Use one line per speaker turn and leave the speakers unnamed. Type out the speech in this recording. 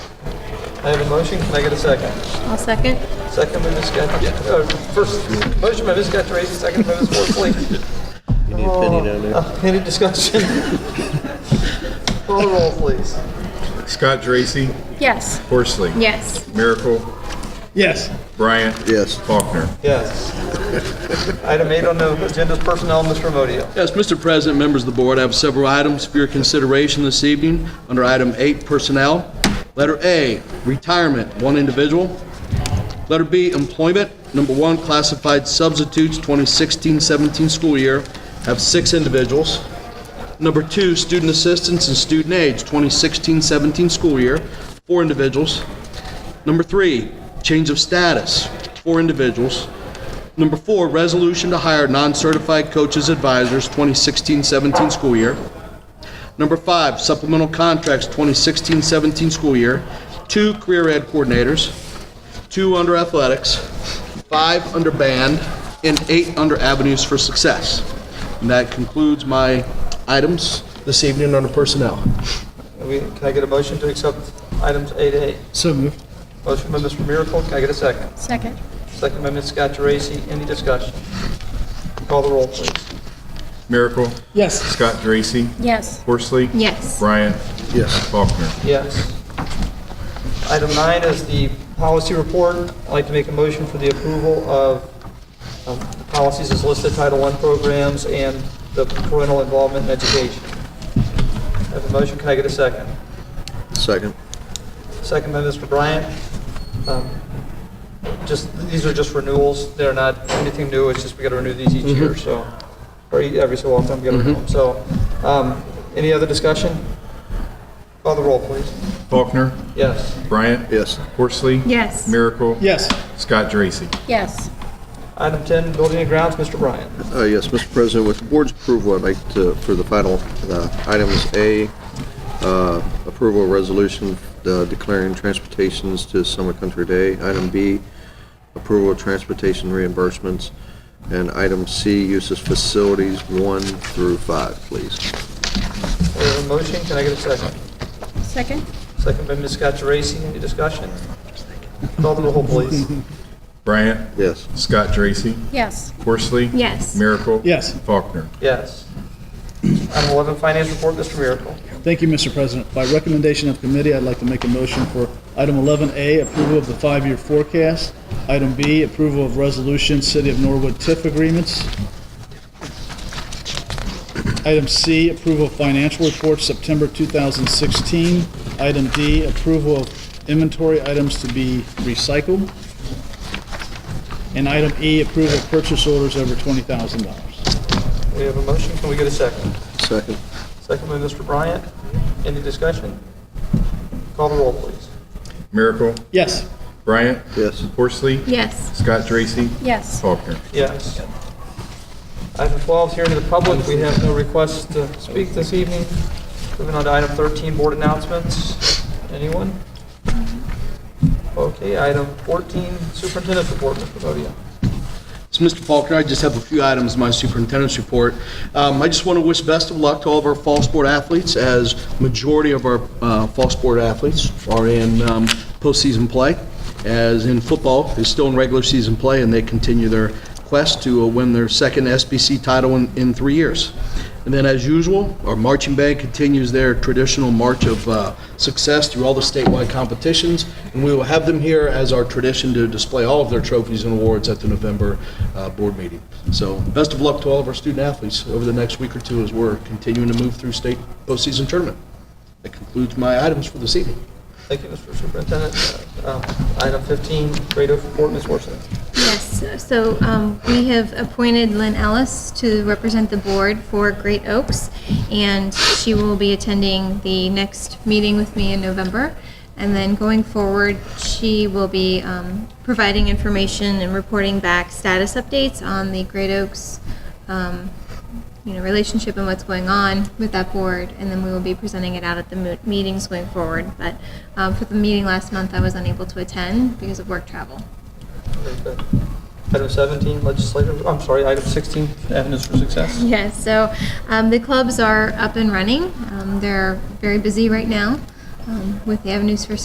I have a motion, can I get a second?
I'll second.
Second by Ms. Gattari, uh, first, motion by Ms. Gattari, second by Ms. Worsley.
You need a penny down there.
Uh, Any discussion? Call the roll, please.
Scott Dracy,
Yes.
Horsley,
Yes.
Miracle,
Yes.
Bryant.
Yes.
Faulkner.
Yes. Item eight on the agenda is personnel, Mr. Modio.
Yes, Mr. President, members of the board, I have several items for your consideration this evening under item eight, personnel. Letter A, retirement, one individual. Letter B, employment, number one, classified substitutes, 2016-17 school year, have six individuals. Number two, student assistants and student aides, 2016-17 school year, four individuals. Number three, change of status, four individuals. Number four, resolution to hire non-certified coaches advisors, 2016-17 school year. Number five, supplemental contracts, 2016-17 school year. Two career ed coordinators, two under athletics, five under band, and eight under avenues for success. And that concludes my items this evening under personnel.
We- Can I get a motion to accept items eight A?
So moved.
Motion by Mr. Miracle, can I get a second?
Second.
Second by Ms. Gattari, any discussion? Call the roll, please.
Miracle,
Yes.
Scott Dracy,
Yes.
Horsley.
Yes.
Bryant. Yes. Faulkner.
Yes. Item nine is the policy report. I'd like to make a motion for the approval of um, the policies as listed, Title I programs and the parental involvement in education. I have a motion, can I get a second?
Second.
Second by Mr. Bryant. Um, Just, these are just renewals, they're not anything new, it's just we gotta renew these each year, so, or e- every so often, we gotta renew them. So, um, any other discussion? Call the roll, please.
Faulkner.
Yes.
Bryant.
Yes.
Horsley.
Yes.
Miracle.
Yes.
Scott Dracy.
Yes.
Item 10, Building and Grounds, Mr. Bryant.
Uh, Yes, Mr. President, with the board's approval, I'd like to, for the final uh, items, A, uh, approval of resolution uh, declaring transportations to Summit Country Day. Item B, approval of transportation reimbursements. And item C, uses facilities one through five, please.
We have a motion, can I get a second?
Second.
Second by Ms. Scottrace, any discussion? Call the roll, please.
Bryant.
Yes.
Scott Dracy,
Yes.
Horsley.
Yes.
Miracle.
Yes.
Faulkner.
Yes. Item 11, Finance Report, Mr. Miracle.
Thank you, Mr. President. By recommendation of committee, I'd like to make a motion for item 11A, approval of the five-year forecast. Item B, approval of resolution City of Norwood TIF agreements. Item C, approval of financial reports September 2016. Item D, approval of inventory items to be recycled. And item E, approval of purchase orders over $20,000.
We have a motion, can we get a second?
Second.
Second by Mr. Bryant, any discussion? Call the roll, please.
Miracle.
Yes.
Bryant.
Yes.
Horsley.
Yes.
Scott Dracy.
Yes.
Faulkner.
Yes. Item 12, hearing of the public, we have no requests to speak this evening. Moving on to item 13, board announcements. Anyone? Okay, item 14, superintendent's report, Mr. Podio.
So, Mr. Faulkner, I just have a few items in my superintendent's report. Um, I just want to wish best of luck to all of our fall sport athletes, as majority of our uh, fall sport athletes are in um, postseason play, as in football, they're still in regular season play, and they continue their quest to uh, win their second SBC title in in three years. And then, as usual, our marching band continues their traditional march of uh, success through all the statewide competitions, and we will have them here as our tradition to display all of their trophies and awards at the November uh, board meeting. So, best of luck to all of our student athletes over the next week or two as we're continuing to move through state postseason tournament. That concludes my items for this evening.
Thank you, Mr. Superintendent. Um, Item 15, grade of report, Ms. Worthing.
Yes. So um, we have appointed Lynn Ellis to represent the board for Great Oaks, and she will be attending the next meeting with me in November. And then going forward, she will be um, providing information and reporting back status updates on the Great Oaks um, you know, relationship and what's going on with that board, and then we will be presenting it out at the mo- meetings going forward. But um, for the meeting last month, I was unable to attend because of work travel.
Very good. Item 17, legislative, I'm sorry, item 16, avenues for success.
Yes, so um, the clubs are up and running. Um, They're very busy right now um, with the Avenues for